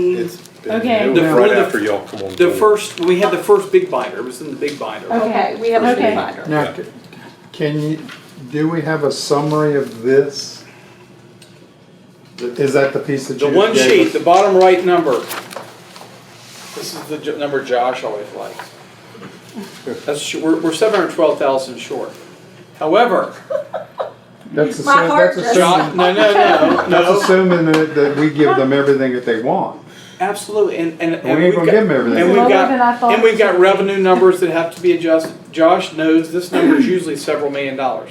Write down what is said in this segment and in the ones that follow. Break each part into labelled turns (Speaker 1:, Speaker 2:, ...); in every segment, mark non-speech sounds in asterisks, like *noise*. Speaker 1: It's been
Speaker 2: Okay.
Speaker 1: due
Speaker 3: The fir-
Speaker 1: right
Speaker 3: the-
Speaker 1: after y'all come on.
Speaker 3: The
Speaker 1: board.
Speaker 3: first, we had the first big binder, it was in the big
Speaker 4: Oh.
Speaker 3: binder.
Speaker 5: Okay, we have a
Speaker 2: Okay.
Speaker 5: provider.
Speaker 4: Now, c- can you, do we have a summary of this? Is that the piece that
Speaker 3: The
Speaker 4: you
Speaker 3: one sheet,
Speaker 4: gave
Speaker 3: the
Speaker 4: us?
Speaker 3: bottom right number. This is the jo- number Josh always likes. That's, sh- we're, we're seven hundred twelve thousand short. However,
Speaker 4: That's assu-
Speaker 5: My heart
Speaker 4: that's
Speaker 5: just-
Speaker 3: Josh,
Speaker 4: assuming,
Speaker 3: no, no, no,
Speaker 4: *laughs* that's
Speaker 3: no,
Speaker 4: assuming that, that we give them everything that they want.
Speaker 3: absolutely, and, and. and
Speaker 4: We ain't
Speaker 3: we've
Speaker 4: gonna
Speaker 3: got-
Speaker 4: give them everything.
Speaker 3: And we've
Speaker 2: Lower than I
Speaker 3: got,
Speaker 2: thought.
Speaker 3: and we've got revenue numbers that have to be adjusted. Josh knows this number is usually several million dollars.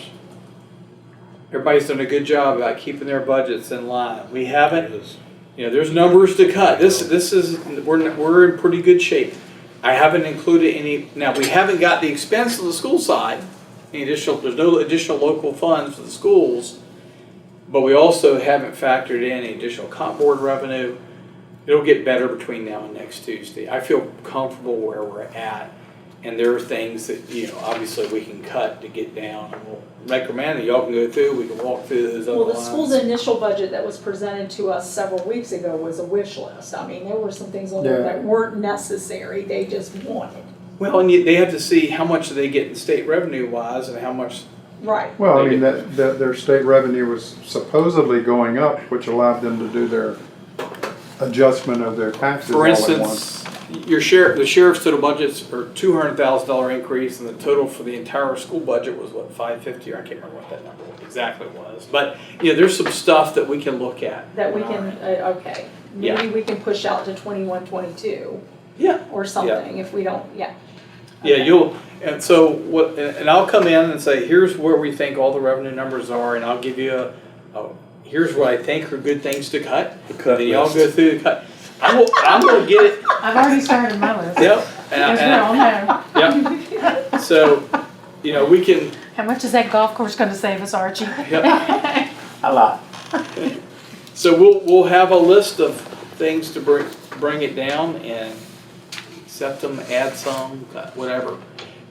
Speaker 3: Everybody's done a good job about keeping their budgets in line. We haven't, you know, there's numbers to cut. This, this is, we're, we're in pretty good shape. I haven't included any, now, we haven't got the expense of the school side, any additional, there's no additional local funds for the schools. But we also haven't factored in any additional comp board revenue. It'll get better between now and next Tuesday. I feel comfortable where we're at. And there are things that, you know, obviously we can cut to get down. And we'll Recommend that y'all can go through, we can walk through those other
Speaker 5: Well,
Speaker 3: lines.
Speaker 5: the school's initial budget that was presented to us several weeks ago was a wish list. I mean, there were some things on there
Speaker 4: Yeah.
Speaker 5: that weren't necessary, they just wanted.
Speaker 3: Well, and yet they have to see how much they get in state revenue wise and how much,
Speaker 5: Right.
Speaker 4: Well, I mean, that, that their state revenue was supposedly going up, which allowed them to do their adjustment of their taxes all
Speaker 3: for
Speaker 4: at once.
Speaker 3: instance, your sheriff, the sheriff's total budgets are two hundred thousand dollar increase and the total for the entire school budget was what, five fifty, or I can't remember what that number exactly was. But, you know, there's some stuff that we can look at.
Speaker 5: That we can, uh, okay, maybe we can push out to twenty-one, twenty-two
Speaker 3: Yeah,
Speaker 5: or something if we don't, yeah.
Speaker 3: yeah, you'll, and so what, and and I'll come in and say, here's where we think all the revenue numbers are and I'll give you a, a, here's what I think are good things to cut.
Speaker 1: The cut
Speaker 3: And y'all
Speaker 1: list.
Speaker 3: go through the cut. I'm, gonna- I'm gonna get it,
Speaker 2: I've already started my
Speaker 3: *laughs*
Speaker 2: list.
Speaker 3: yep. and I-
Speaker 2: There's
Speaker 3: and I-
Speaker 2: no, on there.
Speaker 3: Yep. So, you know, we can,
Speaker 2: How much is that golf course gonna save us, Archie?
Speaker 3: Yep.
Speaker 4: *laughs* A lot.
Speaker 3: so we'll, we'll have a list of things to bring, bring it down and accept them, add some, uh, whatever.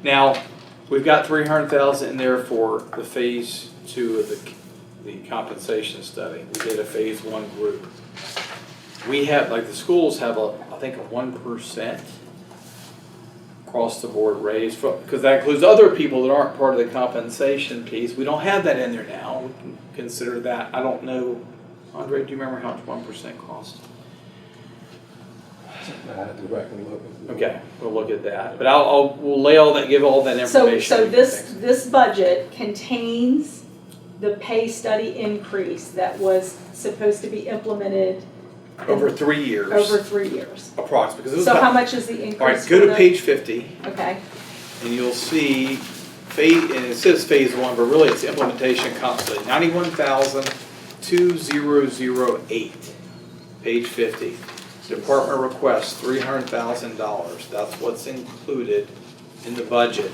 Speaker 3: Now, we've got three hundred thousand in there for the phase two of the, the compensation study. We did a phase one group. We have, like, the schools have a, I think, a one percent across the board raise for, because that includes other people that aren't part of the compensation piece. We don't have that in there now. We can consider that. I don't know. Andre, do you remember how much one percent cost?
Speaker 1: I had to go back and look.
Speaker 3: Okay, we'll look at that. But I'll, I'll, we'll lay all that, give all that
Speaker 5: So,
Speaker 3: information.
Speaker 5: so this, this budget contains the pay study increase that was supposed to be implemented
Speaker 3: Over three years.
Speaker 5: over three years.
Speaker 3: Approximately, because this is
Speaker 5: So how
Speaker 3: about-
Speaker 5: much is the increase?
Speaker 3: All right, go
Speaker 5: for
Speaker 3: to
Speaker 5: the-
Speaker 3: page fifty,
Speaker 5: Okay,
Speaker 3: and you'll see phase, and it says phase one, but really it's implementation constantly, ninety-one thousand, two zero zero eight, page fifty. Department requests three hundred thousand dollars, that's what's included in the budget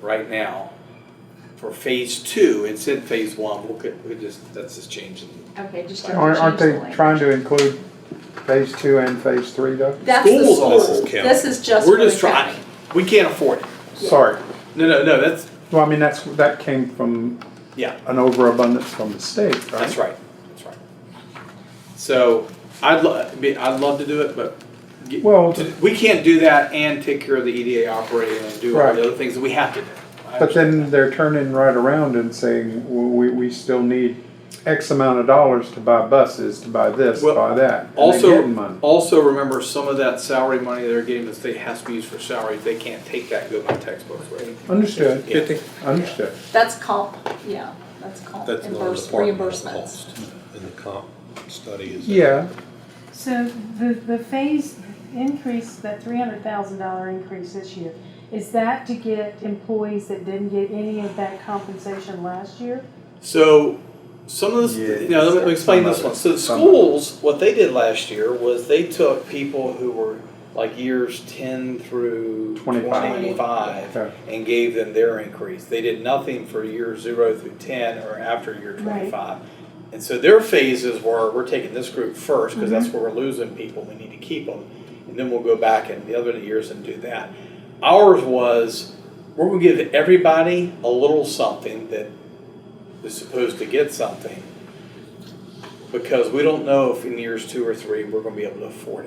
Speaker 3: right now for phase two, it's in phase one, we'll, get- we just, that's just changing.
Speaker 5: okay, just. don't
Speaker 4: Aren't, aren't
Speaker 5: change
Speaker 4: they
Speaker 5: the language.
Speaker 4: trying to include phase two and phase three though?
Speaker 5: That's the
Speaker 3: Schools also
Speaker 5: school.
Speaker 1: count.
Speaker 5: This is just for
Speaker 3: We're
Speaker 5: the
Speaker 3: just trying,
Speaker 5: county.
Speaker 3: we can't afford it,
Speaker 5: Yeah.
Speaker 4: Sorry,
Speaker 3: no, no, no, that's,
Speaker 4: well, I mean, that's, that came from
Speaker 3: yeah.
Speaker 4: an overabundance from the state, right?
Speaker 3: That's right, that's right. So, I'd lo, I mean, I'd love to do it, but get-
Speaker 4: Well,
Speaker 3: we can't do that and take care of the EDA operating and do all
Speaker 4: Right.
Speaker 3: the other things that we have to do. I
Speaker 4: but
Speaker 3: understand.
Speaker 4: then they're turning right around and saying, well, we, we still need X amount of dollars to buy buses, to buy this, to
Speaker 3: Well,
Speaker 4: buy that. and they're getting
Speaker 3: Also,
Speaker 4: money.
Speaker 3: also remember, some of that salary money they're getting, the state has to be used for salaries, they can't take that, and go by textbooks, right?
Speaker 4: Understood,
Speaker 3: Yeah.
Speaker 4: understood.
Speaker 5: That's comp, yeah, that's comp
Speaker 1: That's another
Speaker 5: reimburse-
Speaker 1: department
Speaker 5: reimbursements.
Speaker 1: cost in the comp study is.
Speaker 4: Yeah,
Speaker 2: So the, the phase increase, that three hundred thousand dollar increase this year, is that to get employees that didn't get any of that compensation last year?
Speaker 3: So, some of
Speaker 4: Yeah,
Speaker 3: this, now, let me explain
Speaker 4: some of
Speaker 3: this
Speaker 4: it,
Speaker 3: one. So the
Speaker 4: some of it.
Speaker 3: schools, what they did last year was they took people who were like years ten through
Speaker 4: Twenty-five.
Speaker 3: twenty-five
Speaker 4: Okay.
Speaker 3: and gave them their increase. They did nothing for year zero through ten or after year
Speaker 2: Right.
Speaker 3: twenty-five. And so their phases were, we're taking this group first, because that's where we're losing people, we need to keep them. And then we'll go back in the other years and do that. Ours was, we're gonna give everybody a little something that is supposed to get something. Because we don't know if in years two or three, we're gonna be able to afford it.